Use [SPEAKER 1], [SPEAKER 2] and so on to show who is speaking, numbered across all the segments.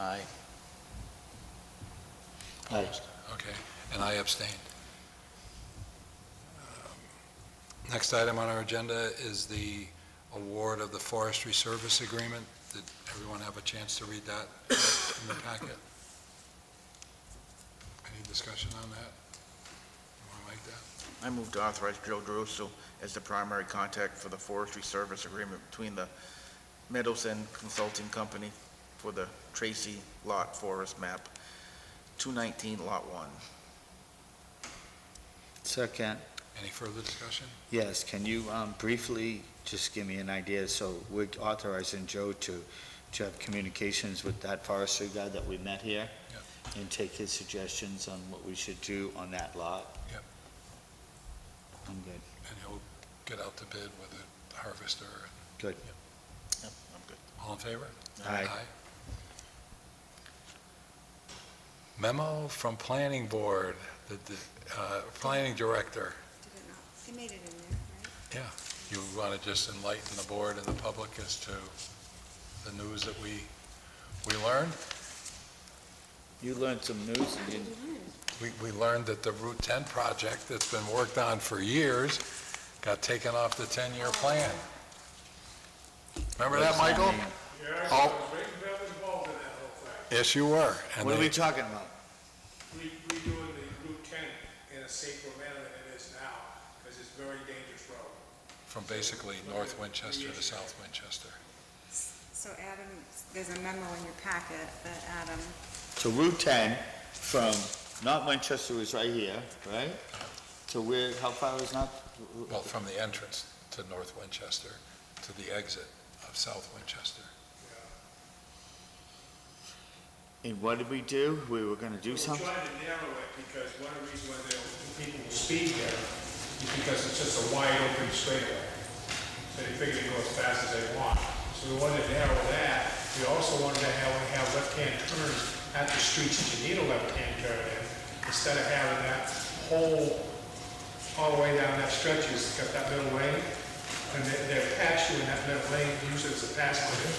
[SPEAKER 1] Aye.
[SPEAKER 2] Opposed?
[SPEAKER 3] Okay, and I abstained. Um, Next item on our agenda is the award of the forestry service agreement. Did everyone have a chance to read that in the packet? Any discussion on that? You want to make that?
[SPEAKER 1] I move to authorize Joe Drusso as the primary contact for the forestry service agreement between the Meadows End Consulting Company for the Tracy Lot Forest Map, 219 Lot 1.
[SPEAKER 2] Second,
[SPEAKER 3] Any further discussion?
[SPEAKER 2] yes, can you um, briefly just give me an idea? So we're authorizing Joe to, to have communications with that forestry guy that we met here? And take his suggestions on what we should do on that lot?
[SPEAKER 3] Yep.
[SPEAKER 2] I'm good.
[SPEAKER 3] And he'll get out to bid with a harvester.
[SPEAKER 2] Good.
[SPEAKER 1] Yep, I'm good.
[SPEAKER 3] All in favor?
[SPEAKER 2] Aye.
[SPEAKER 3] Memo from Planning Board, the, the, uh, Planning Director.
[SPEAKER 4] Did it not? They made it in there, right?
[SPEAKER 3] You want to just enlighten the board and the public as to the news that we, we learned?
[SPEAKER 2] You learned some news and you-
[SPEAKER 3] We, we learned that the Route 10 project that's been worked on for years got taken off the 10-year plan. Remember that, Michael?
[SPEAKER 5] Yeah, I
[SPEAKER 3] Oh.
[SPEAKER 5] was waiting to have involved in that whole thing.
[SPEAKER 3] Yes, you were. And
[SPEAKER 2] What are we
[SPEAKER 3] they-
[SPEAKER 2] talking about?
[SPEAKER 5] Re- Redoing the Route 10 in a safer manner than it is now, because it's a very dangerous road.
[SPEAKER 3] From basically North Winchester to South Winchester.
[SPEAKER 4] So Adam, there's a memo in your packet that Adam,
[SPEAKER 2] So Route 10 from, not Winchester is right here, right? To where, how far is not?
[SPEAKER 3] Well, from the entrance to North Winchester to the exit of South Winchester.
[SPEAKER 2] And what did we do? We were gonna do
[SPEAKER 5] We're
[SPEAKER 2] something?
[SPEAKER 5] trying to narrow it, because one of the reasons why they don't- people will speed there is because it's just a wide open straightaway. So they figure they go as fast as they want. So we wanted to narrow that. We also wanted to have, have left-hand turns at the streets that you need a left-hand turn in, instead of having that whole all the way down that stretch, you just got that middle lane, and they, they're patched in that middle lane, use it as a passenger.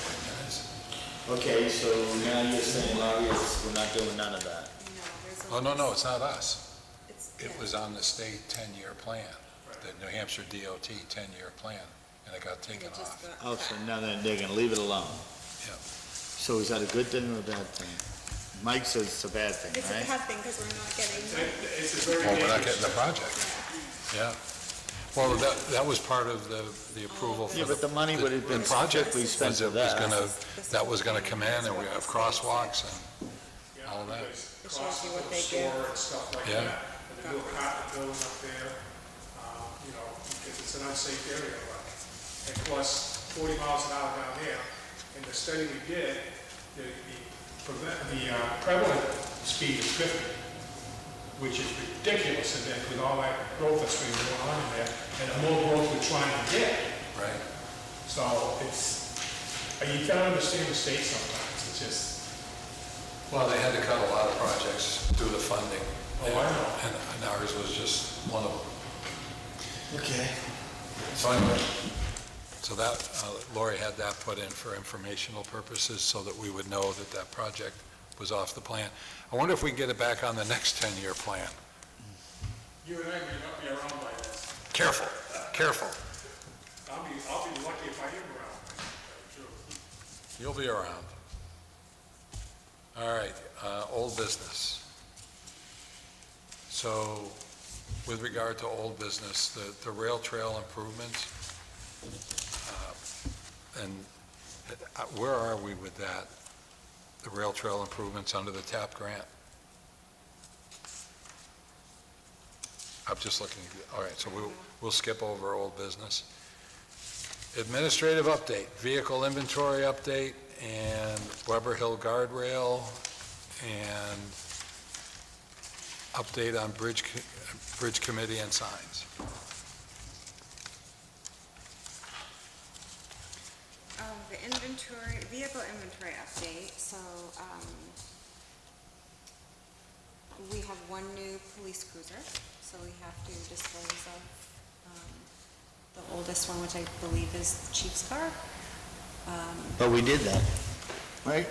[SPEAKER 2] Okay, so now you're saying, Larry, it's- we're not doing none of that.
[SPEAKER 4] no, there's a...
[SPEAKER 3] Oh, no, no, it's not us.
[SPEAKER 4] It's-
[SPEAKER 3] It
[SPEAKER 4] yeah.
[SPEAKER 3] was on the state 10-year plan, the New Hampshire DOT 10-year plan, and it got
[SPEAKER 4] It
[SPEAKER 3] taken
[SPEAKER 4] just
[SPEAKER 3] off.
[SPEAKER 4] got
[SPEAKER 2] Oh, so
[SPEAKER 4] cut.
[SPEAKER 2] now they're, they're gonna leave it alone?
[SPEAKER 3] Yeah.
[SPEAKER 2] So is that a good thing or a bad thing? Mike says it's a bad thing,
[SPEAKER 4] It's a
[SPEAKER 2] right?
[SPEAKER 4] bad thing because we're not getting,
[SPEAKER 5] It's a very
[SPEAKER 3] Well, we're not
[SPEAKER 5] dangerous.
[SPEAKER 3] getting the project. Yeah. Well, that, that was part of the, the approval
[SPEAKER 2] Yeah,
[SPEAKER 3] for
[SPEAKER 2] but
[SPEAKER 3] the
[SPEAKER 2] the money would have been
[SPEAKER 3] the project.
[SPEAKER 2] strictly spent
[SPEAKER 3] was it
[SPEAKER 2] for
[SPEAKER 3] was
[SPEAKER 2] that.
[SPEAKER 3] gonna-
[SPEAKER 4] This
[SPEAKER 3] That
[SPEAKER 4] is-
[SPEAKER 3] was going to come in, and we have crosswalks, and
[SPEAKER 5] Yeah,
[SPEAKER 3] all of that.
[SPEAKER 5] because
[SPEAKER 4] It shows
[SPEAKER 5] costs
[SPEAKER 4] you
[SPEAKER 5] of
[SPEAKER 4] what
[SPEAKER 5] the
[SPEAKER 4] they
[SPEAKER 5] store
[SPEAKER 4] give.
[SPEAKER 5] And stuff like
[SPEAKER 3] Yeah.
[SPEAKER 5] that, and the new apartment building up there, um, you know, because it's an unsafe area, but, and plus forty miles an hour down there. In the study we did, the, the prevent, the uh, prevalent speed is fifty, which is ridiculous in there, with all that growth that's been going on in there, and the more growth we're trying to get,
[SPEAKER 3] right?
[SPEAKER 5] so it's, you gotta understand the state sometimes, it's just,
[SPEAKER 3] Well, they had to cut a lot of projects through the funding.
[SPEAKER 5] Oh, I know.
[SPEAKER 3] And and ours was just one of them.
[SPEAKER 2] Okay.
[SPEAKER 3] Finally. So that, uh, Lori had that put in for informational purposes so that we would know that that project was off the plan. I wonder if we can get it back on the next 10-year plan.
[SPEAKER 5] You and I may not be around by then.
[SPEAKER 3] Careful, careful.
[SPEAKER 5] I'll be, I'll be lucky if I am around. True.
[SPEAKER 3] You'll be around. All right, uh, old business. So with regard to old business, the, the rail trail improvements, uh, and uh, where are we with that? The rail trail improvements under the TAP grant? I'm just looking, all right, so we'll, we'll skip over old business. Administrative update, vehicle inventory update, and Weber Hill guardrail, and update on bridge, co- bridge committee and signs.
[SPEAKER 4] um, the inventory, vehicle inventory update, so, um, we have one new police cruiser, so we have to dispose of, um, the oldest one, which I believe is the chief's car.
[SPEAKER 2] But we did that, right?